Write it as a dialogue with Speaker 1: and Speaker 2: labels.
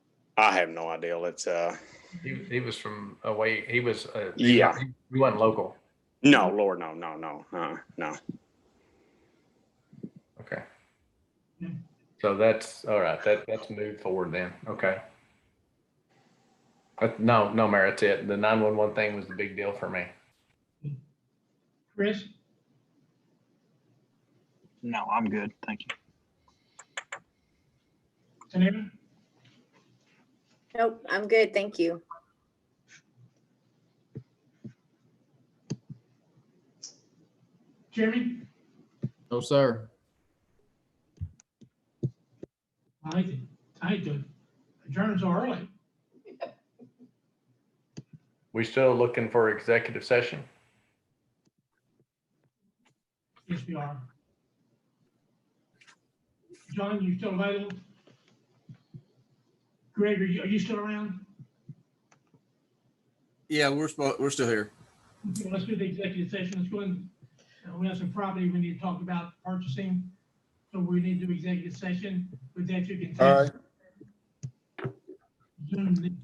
Speaker 1: I have no idea. Let's, uh,
Speaker 2: He, he was from away. He was, uh,
Speaker 1: Yeah.
Speaker 2: he- He wasn't local.
Speaker 1: no, Lord, no, no, no, uh, no.
Speaker 2: Okay. So that's, all right, that, that's moved forward then. Okay. Uh, No, no, Mayor, that's it. The 911 thing was the big deal for me.
Speaker 3: Chris?
Speaker 4: No, I'm good. Thank you.
Speaker 3: Tanita?
Speaker 5: Nope, I'm good, thank you.
Speaker 3: Jeremy?
Speaker 6: No, sir.
Speaker 3: I did, I did. Adjourns are early.
Speaker 2: We still looking for executive session?
Speaker 3: Yes, we are. John, you still available? Greg, are you, are you still around?
Speaker 6: Yeah, we're spo- we're still here.
Speaker 3: Okay, Let's do the executive session. Let's go in. Uh, We have some property we need to talk about purchasing. So we need to do executive session. With that, you can. take
Speaker 7: All right.
Speaker 3: Zoom